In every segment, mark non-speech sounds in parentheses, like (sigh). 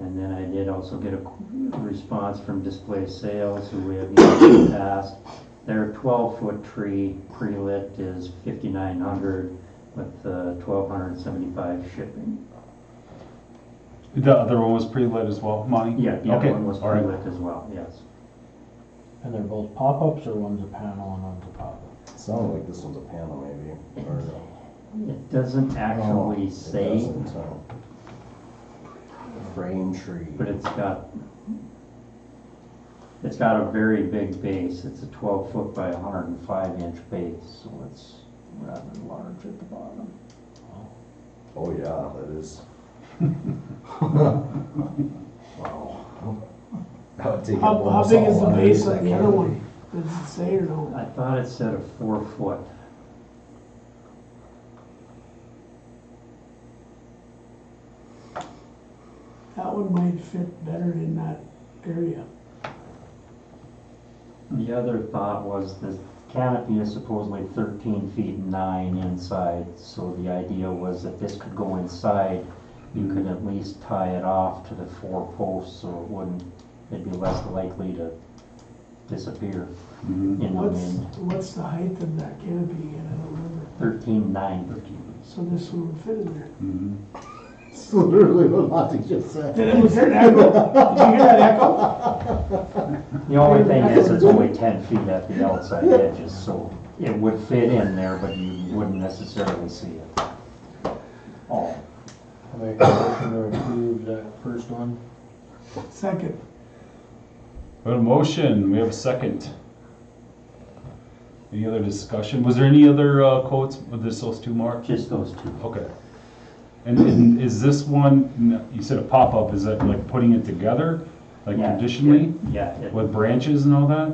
And then I did also get a response from Display Sales, who we have emailed in the past. Their twelve-foot tree pre-lit is fifty-nine hundred with twelve hundred and seventy-five shipping. The other one was pre-lit as well, Monty? Yeah, the Okay, other one was all right. pre-lit as well, yes. And they're both pop-ups, or one's a panel and one's a pop-up? Sounded like this was a panel maybe, or. It doesn't No, actually Oh, it say, doesn't, so. Frame tree. but it's got, it's got a very big base. It's a twelve-foot by hundred and five-inch base, so it's rather large at the bottom. Oh, yeah, that (laughs) is. Wow. That would take How, up how almost big is all the of base of the everything. other one? Does it say or no? I thought it said a four-foot. That one might fit better in that area. The other thought was the canopy is supposedly thirteen feet and nine inside, so the idea was that this could go inside. You could at least tie it off to the four posts, so it wouldn't, it'd be less likely to disappear Mm-hmm. in the What's, wind. what's the height of that canopy again? I don't remember. Thirteen nine. So this one would fit in there. Mhm. It's literally what Monty just said. Did it, was there an echo? Did you hear that echo? The only thing is, it's only ten feet at the outside edges, so it would fit in there, but you wouldn't necessarily see it. Oh, I make a motion to approve that first one. Second, We have a motion, we have a second. Any other discussion? Was there any other uh, quotes with this, those two, Mark? just those two. Okay. And- And is this one, you said a pop-up, is that like putting it together, like Yeah, traditionally, Yeah, it- with branches and all that?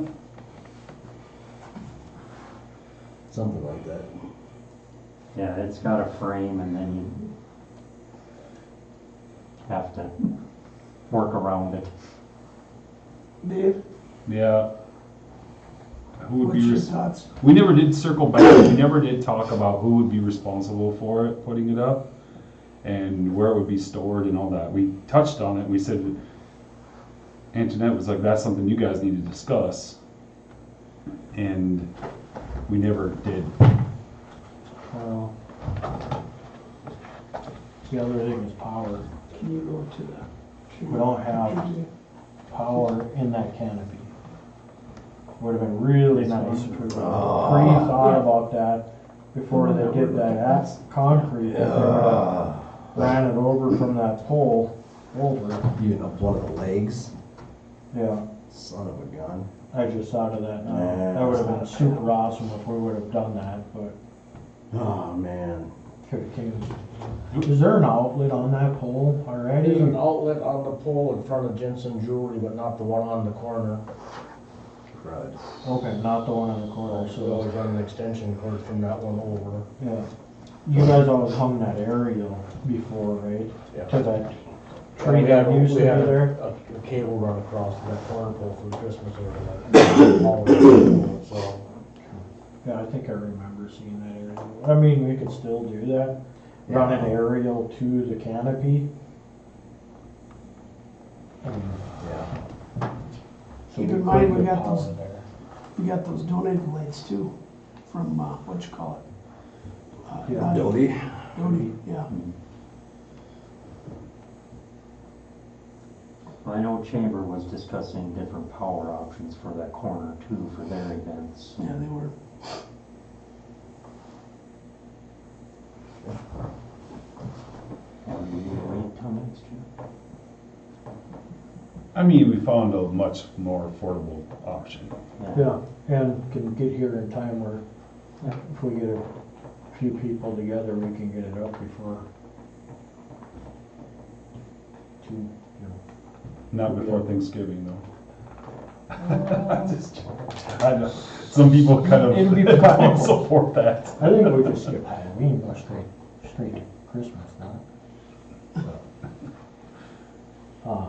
Something like that. Yeah, it's got a frame and then you have to work around it. Dave, Yeah. Who would what's be, your res- thoughts? we never did circle back, we never did talk about who would be responsible for it, putting it up, and where it would be stored and all that. We touched on it, we said, Antoinette was like, that's something you guys need to discuss. And we never did. Well, The other thing is power. Can you go to the? We don't have power in that canopy. Would've been really nice if we would've Ah. pre-thought about that before they did that ass concrete. that they Uh, Ran it over from that pole over, Even up one of the legs, yeah. son of a gun. I just thought of that Yeah, now. That would've been it's not super awesome if we would've done that, but Oh, man. could've came. Is there an outlet on that pole already? There's an outlet on the pole in front of Jensen Jewelry, but not the one on the corner. Crud. Okay, not the one on the corner, So we so, always run an extension cord from that one over. yeah. You guys always hung that aerial before, right? Yeah. To that And tree we had- that used to we be had a- there? A a cable run across to that corner pole for Christmas or like. all over, So, Yeah, I think I remember seeing that aerial. I mean, we could still do that. Run an aerial to the canopy. Hmm. And Yeah. so Keep we in mind, could we get got power those- there. We got those donated lights too, from, uh, what you call it? Uh, Yeah. not- Dodie. Doty, yeah. I know Chamber was discussing different power options for that corner too, for their events. Yeah, they were. Or we need to wait till next year. I mean, we found a much more affordable option. Yeah, and can get here in time where if we get a few people together, we can get it up before two, you know. Not before Thanksgiving, though. (laughs) Just joking. I know, some people kind It'd be of fine. don't (laughs) support that. I think we just skip Halloween, go straight, straight to Christmas now. Uh,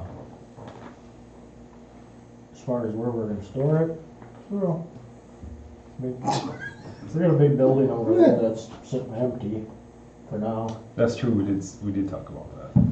As far as where we're gonna store it, well, we, we got a big building over there that's sitting empty for now. That's true, we did, s- we did talk about that.